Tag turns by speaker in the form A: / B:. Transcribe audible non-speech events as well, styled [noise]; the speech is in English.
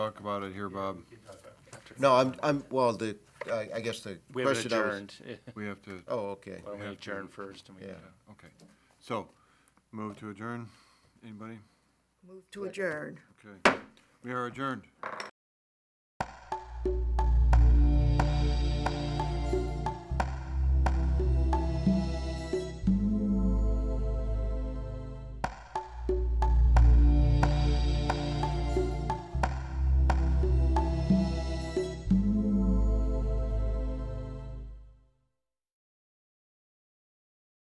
A: Talk about it here, Bob.
B: No, I'm, I'm, well, the, I, I guess the
C: We haven't
B: question I was-
C: adjourned. [laughs]
A: We have to,
B: Oh, okay.
C: Why don't we
A: have to-
C: adjourn first? and we-
B: Yeah.
A: okay. So, move to adjourn. Anybody?
D: to adjourn.
A: Okay. We are adjourned.